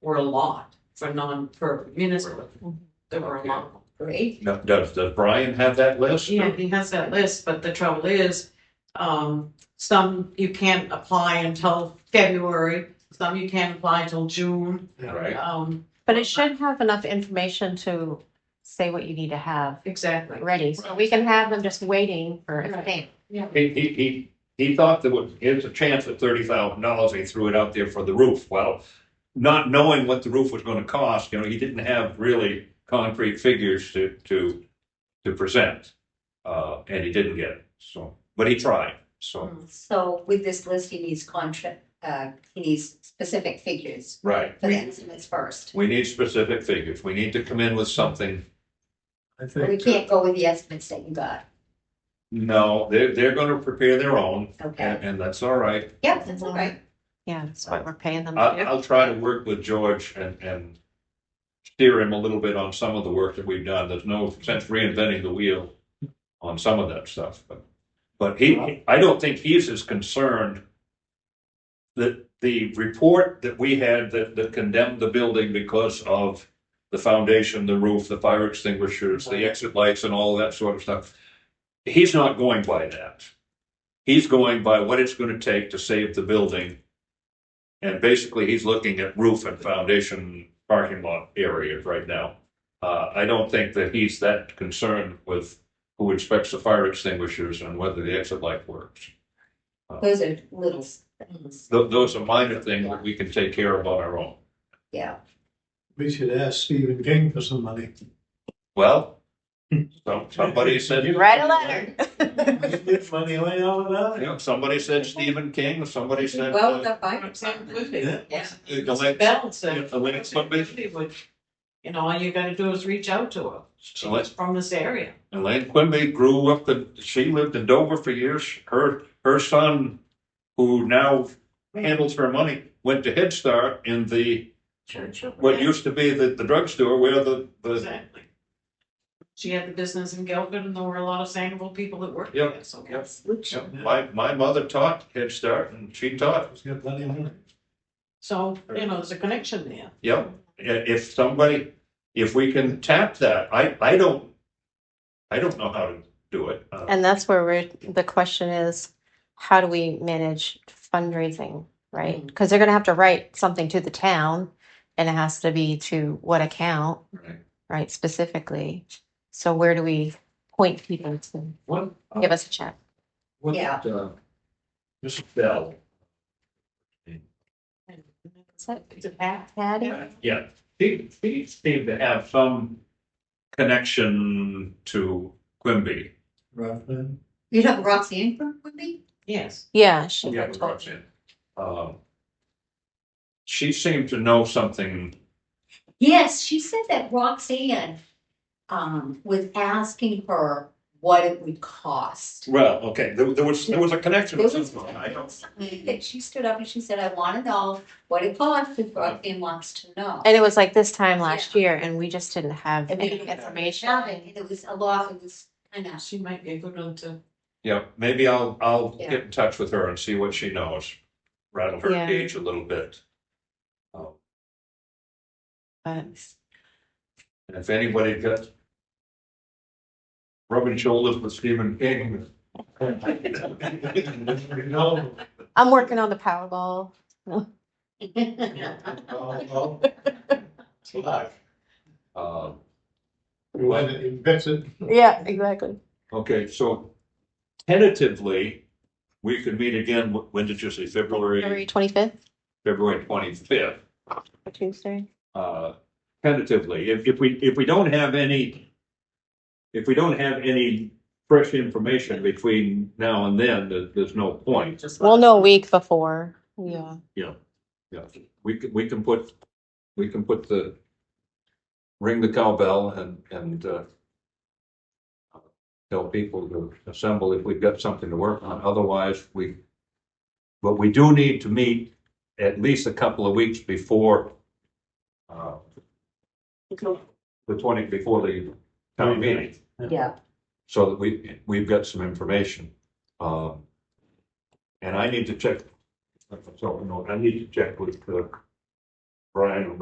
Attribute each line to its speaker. Speaker 1: were a lot for non, for municipal. There were a lot.
Speaker 2: Great.
Speaker 3: Now, does, does Brian have that list?
Speaker 1: Yeah, he has that list, but the trouble is, um, some you can't apply until February, some you can't apply until June.
Speaker 3: Right,
Speaker 1: Um,
Speaker 4: But it should have enough information to say what you need to have
Speaker 1: exactly.
Speaker 4: ready, so we can have them just waiting for a
Speaker 1: Right.
Speaker 4: thing.
Speaker 3: he, he, he, he thought there was, here's a chance at thirty thousand dollars, he threw it out there for the roof, well, not knowing what the roof was gonna cost, you know, he didn't have really concrete figures to, to, to present. Uh, and he didn't get it, so, but he tried, so,
Speaker 2: So with this list, he needs contract, uh, he needs specific figures
Speaker 3: right.
Speaker 2: for the estimates first.
Speaker 3: We need specific figures, we need to come in with something,
Speaker 5: I
Speaker 2: We
Speaker 5: think,
Speaker 2: can't go with the estimates that you got,
Speaker 3: no, they're, they're gonna prepare their own,
Speaker 2: okay?
Speaker 3: and, and that's all right.
Speaker 2: Yep, that's all right.
Speaker 4: Yeah, that's what we're paying them
Speaker 3: I,
Speaker 4: to do.
Speaker 3: I'll try to work with George and, and steer him a little bit on some of the work that we've done. There's no sense reinventing the wheel on some of that stuff, but, but he, I don't think he's as concerned that the report that we had that, that condemned the building because of the foundation, the roof, the fire extinguishers, the exit lights and all that sort of stuff. He's not going by that. He's going by what it's going to take to save the building and basically, he's looking at roof and foundation parking lot areas right now. Uh, I don't think that he's that concerned with who inspects the fire extinguishers and whether the exit light works.
Speaker 2: Those are little things,
Speaker 3: Tho- those are minor things that we can take care of on our own.
Speaker 2: yeah.
Speaker 5: we should ask Stephen King for some money.
Speaker 3: Well, some, somebody said, you
Speaker 4: Write a letter.
Speaker 5: Get money way out of that.
Speaker 3: know, somebody said Stephen King, somebody said.
Speaker 2: Well,
Speaker 3: uh,
Speaker 2: the fire
Speaker 1: Sam
Speaker 2: department,
Speaker 1: Woodby.
Speaker 2: Yeah.
Speaker 3: The link-
Speaker 1: Balance
Speaker 3: yeah,
Speaker 1: it.
Speaker 3: the links would be-
Speaker 1: Would- You know, all you gotta do is reach out to her.
Speaker 3: So let's-
Speaker 1: From this area.
Speaker 3: Elaine Quimby grew up in, she lived in Dover for years. Her, her son, who now handles her money, went to Head Start in the, what used to be the, the drugstore where the, the,
Speaker 1: Exactly. She had the business in Guilford and there were a lot of Sangerville people that worked
Speaker 3: Yep.
Speaker 1: there, so.
Speaker 3: Yep.
Speaker 2: which,
Speaker 3: Yeah, my, my mother taught Head Start and she taught,
Speaker 5: He's got plenty of money.
Speaker 1: So, you know, there's a connection there.
Speaker 3: yep. I- If somebody, if we can tap that, I, I don't, I don't know how to do it. Uh,
Speaker 4: And that's where we're, the question is, how do we manage fundraising, right? Because they're gonna have to write something to the town, and it has to be to what account,
Speaker 3: right.
Speaker 4: right, specifically. So where do we point people to
Speaker 6: What, uh,
Speaker 4: give us a check?
Speaker 6: what,
Speaker 2: Yeah.
Speaker 6: uh, Mrs. Bell,
Speaker 4: Is that
Speaker 1: It's a path.
Speaker 4: Patty?
Speaker 3: Yeah, she, she seemed to have some connection to Quimby.
Speaker 5: Rothman.
Speaker 2: you know, Roxy Ingram would be?
Speaker 1: Yes.
Speaker 4: Yeah, she,
Speaker 3: Yeah, with Roxanne. Um, She seemed to know something,
Speaker 2: Yes, she said that Roxanne, um, was asking her what it would cost.
Speaker 3: well, okay, there, there was, there was a connection.
Speaker 2: There
Speaker 3: with
Speaker 2: was
Speaker 3: something. I don't-
Speaker 2: something that she stood up and she said, I wanna know what it costs, and Roxanne wants to know.
Speaker 4: and it was like this time last year, and we just didn't have
Speaker 2: And we
Speaker 4: any
Speaker 2: didn't have
Speaker 4: information.
Speaker 2: And it was a lot, it was kind of,
Speaker 1: She might be a good one to
Speaker 3: Yeah, maybe I'll, I'll
Speaker 2: Yeah.
Speaker 3: get in touch with her and see what she knows, rattle her
Speaker 4: Yeah.
Speaker 3: cage a little bit. Um,
Speaker 4: But
Speaker 3: And if anybody gets rubbing shoulders with Stephen King.
Speaker 5: No.
Speaker 4: I'm working on the Powerball.
Speaker 5: Oh, oh. Fuck.
Speaker 3: um,
Speaker 5: You went and invented.
Speaker 4: Yeah, exactly.
Speaker 3: Okay, so tentatively, we could meet again, wh- when did you say,
Speaker 4: February
Speaker 3: February,
Speaker 4: twenty-fifth,
Speaker 3: February twenty-fifth?
Speaker 4: Tuesday.
Speaker 3: Uh, tentatively, if, if we, if we don't have any, if we don't have any fresh information between now and then, there, there's no point.
Speaker 1: just.
Speaker 4: We'll know a week before. Yeah.
Speaker 3: Yeah, we can, we can put, we can put the, ring the cowbell and, and, uh, tell people to assemble if we've got something to work on, otherwise we, but we do need to meet at least a couple of weeks before, uh, the twenty, before the town meeting,
Speaker 2: yeah.
Speaker 3: so that we, we've got some information. Um, and I need to check, so, no, I need to check with, uh, Brian